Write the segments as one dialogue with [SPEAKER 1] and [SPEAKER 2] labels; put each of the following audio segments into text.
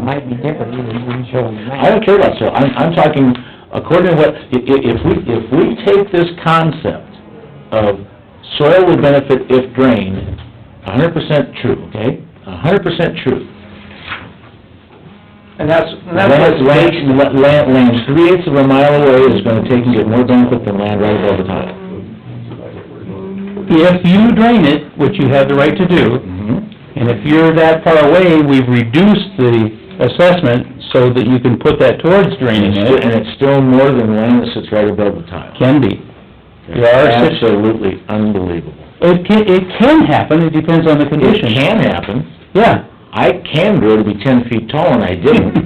[SPEAKER 1] might be different, you didn't show them that.
[SPEAKER 2] I don't care about soil, I'm, I'm talking according to what, i- i- if we, if we take this concept of soil would benefit if drained, a hundred percent true, okay? A hundred percent true.
[SPEAKER 3] Oh,
[SPEAKER 4] And that's, and that's what
[SPEAKER 2] Land,
[SPEAKER 4] it's based,
[SPEAKER 2] land, la- land, land three eighths of a mile away is gonna take and get more benefit than land right above the tile.
[SPEAKER 3] If you drain it, which you have the right to do, and if you're that far away, we've reduced the assessment so that you can put that towards draining
[SPEAKER 2] And it's- and
[SPEAKER 3] it,
[SPEAKER 2] it's still more than land that sits right above the tile.
[SPEAKER 3] can be.
[SPEAKER 2] Okay.
[SPEAKER 3] There are such-
[SPEAKER 2] Absolutely unbelievable.
[SPEAKER 3] It can, it can happen, it depends on the
[SPEAKER 2] It
[SPEAKER 3] condition.
[SPEAKER 2] can happen.
[SPEAKER 3] Yeah.
[SPEAKER 2] I can grow to be ten feet tall and I didn't.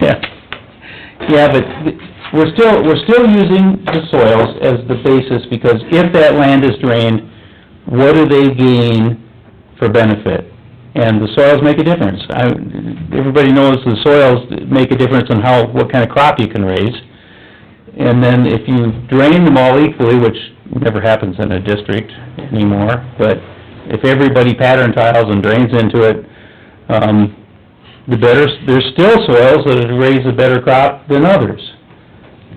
[SPEAKER 3] Yeah, yeah, but we're still, we're still using the soils as the basis, because if that land is drained, what do they gain for benefit? And the soils make a difference. I, everybody knows the soils make a difference in how, what kind of crop you can raise. And then if you drain them all equally, which never happens in a district anymore, but if everybody pattern tiles and drains into it, um, the better, there's still soils that raise a better crop than others.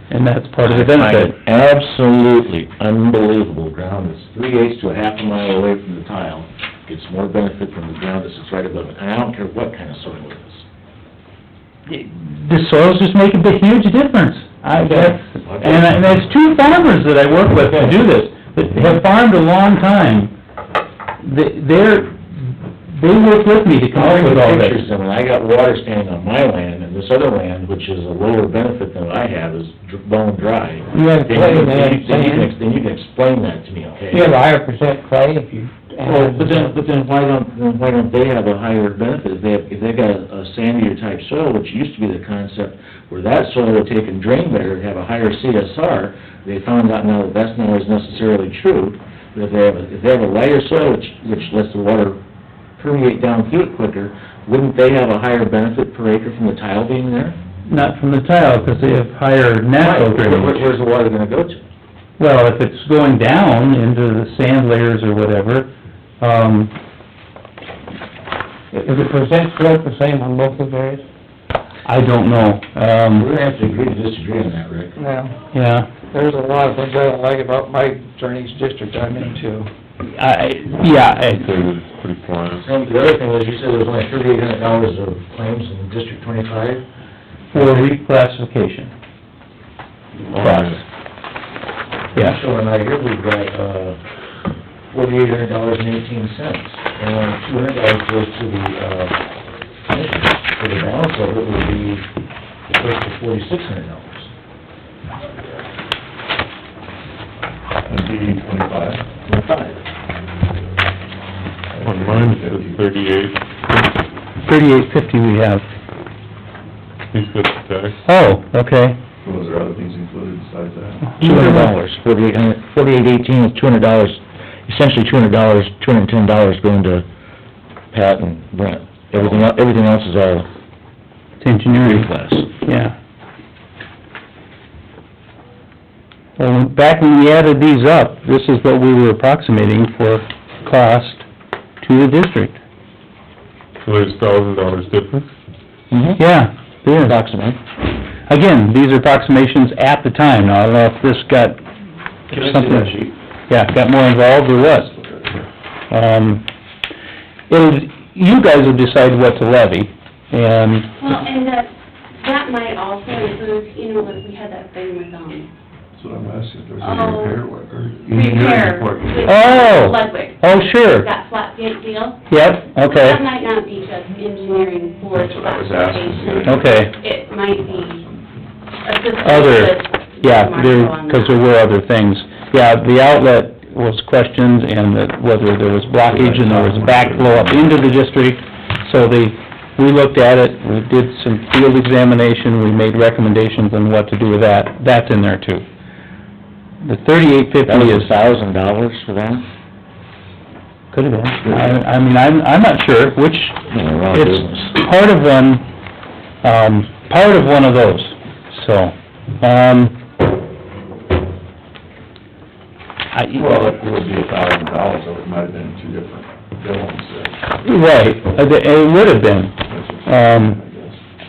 [SPEAKER 3] And that's part of the benefit.
[SPEAKER 2] Absolutely unbelievable. Ground that's three eighths to a half a mile away from the tile gets more benefit from the ground that sits right above it. And I don't care what kind of soil it is.
[SPEAKER 3] The soils just make a big, huge difference. I, that's, and I- and there's two farmers that I work with that do this, that have farmed a long time. They- They're, they work with me to come
[SPEAKER 2] I
[SPEAKER 3] up with all
[SPEAKER 2] pictures
[SPEAKER 3] this.
[SPEAKER 2] and I got water standing on my land and this other land, which is a lower benefit than I have, is dr- bone dry.
[SPEAKER 1] You have
[SPEAKER 2] Then you,
[SPEAKER 1] clay
[SPEAKER 2] then
[SPEAKER 1] there,
[SPEAKER 2] you- then you can,
[SPEAKER 1] sand,
[SPEAKER 2] ex- then you can explain that to me, okay?
[SPEAKER 1] you have a higher percent clay if you
[SPEAKER 2] Well,
[SPEAKER 1] add.
[SPEAKER 2] but then, but then why don't, then why don't they have a higher benefit? If they have, if they've got a a sandier type soil, which used to be the concept where that soil would take and drain better and have a higher CSR, they found out now that that's not as necessarily true. That if they have, a- if they have a lighter soil, which, which lets the water permeate down through it quicker, wouldn't they have a higher benefit per acre from the tile being there?
[SPEAKER 3] Not from the tile, because they have higher natural
[SPEAKER 2] Right. Where-
[SPEAKER 3] drainage.
[SPEAKER 2] Where's the water gonna go to?
[SPEAKER 3] Well, if it's going down into the sand layers or whatever, um,
[SPEAKER 1] Is the percent slope the same on both those areas?
[SPEAKER 3] I don't know.
[SPEAKER 2] We're
[SPEAKER 3] Um,
[SPEAKER 2] gonna have to agree to disagree on that, Rick.
[SPEAKER 4] yeah,
[SPEAKER 3] yeah,
[SPEAKER 4] there's a lot of things I don't like about my drainage district I'm in too.
[SPEAKER 3] I, yeah, I,
[SPEAKER 5] Pretty, pretty flat.
[SPEAKER 2] And the other thing was, you said there was only thirty-eight hundred dollars of claims in District twenty-five?
[SPEAKER 3] for reclassification, yeah.
[SPEAKER 2] Showing right here, we've got, uh, forty-eight hundred dollars and eighteen cents, and then two hundred dollars goes to the, uh, for the balance of it would be, close to forty-six hundred dollars.
[SPEAKER 5] DD twenty-five.
[SPEAKER 2] Twenty-five.
[SPEAKER 5] On mine, it says thirty-eight,
[SPEAKER 3] Thirty-eight fifty we have.
[SPEAKER 5] he's got the tax.
[SPEAKER 3] Oh, okay.
[SPEAKER 5] Was there other things included besides that?
[SPEAKER 2] Two hundred dollars, forty-eight hundred, forty-eight eighteen is two hundred dollars, essentially two hundred dollars, two hundred and ten dollars going to Pat and Brent. Everything, el- everything else is all
[SPEAKER 3] It's engineering,
[SPEAKER 2] class.
[SPEAKER 3] yeah. Well, back when we added these up, this is what we were approximating for cost to the district.
[SPEAKER 5] So there's thousand dollars difference?
[SPEAKER 2] Mm-hmm.
[SPEAKER 3] Yeah, there is.
[SPEAKER 2] Approximately.
[SPEAKER 3] Again, these are approximations at the time, now I don't know if this got something, yeah, got more involved or what. Um, it'll, you guys will decide what to levy, and,
[SPEAKER 6] Well, and that, that might also include, you know, when we had that thing with, um,
[SPEAKER 5] That's what I'm asking, if there's
[SPEAKER 6] Oh.
[SPEAKER 5] work, or
[SPEAKER 6] repair. with
[SPEAKER 3] Oh.
[SPEAKER 6] Ludwig,
[SPEAKER 3] oh, sure,
[SPEAKER 6] that flat gate deal.
[SPEAKER 3] yep, okay,
[SPEAKER 6] That might not be just engineering for the
[SPEAKER 5] That's what I was asking.
[SPEAKER 6] classification.
[SPEAKER 3] okay,
[SPEAKER 6] It might be assisted
[SPEAKER 3] Other,
[SPEAKER 6] with...
[SPEAKER 3] yeah,
[SPEAKER 6] Marshall
[SPEAKER 3] there,
[SPEAKER 6] on that.
[SPEAKER 3] 'cause there were other things. Yeah, the outlet was questioned, and that whether there was blockage, and there was backflow up into the district, so they, we looked at it, we did some field examination, we made recommendations on what to do with that, that's in there too. The thirty-eight
[SPEAKER 2] That
[SPEAKER 3] fifty
[SPEAKER 2] was
[SPEAKER 3] is,
[SPEAKER 2] a thousand dollars for that?
[SPEAKER 3] could have been, I, I mean, I'm, I'm not sure which,
[SPEAKER 2] Yeah, wrong
[SPEAKER 3] it's
[SPEAKER 2] business.
[SPEAKER 3] part of one, um, part of one of those, so, um... I-
[SPEAKER 5] Well, if it would be a thousand dollars, so it might have been two different billings,
[SPEAKER 3] Right, uh, the- it would have been,
[SPEAKER 5] that's what
[SPEAKER 3] um,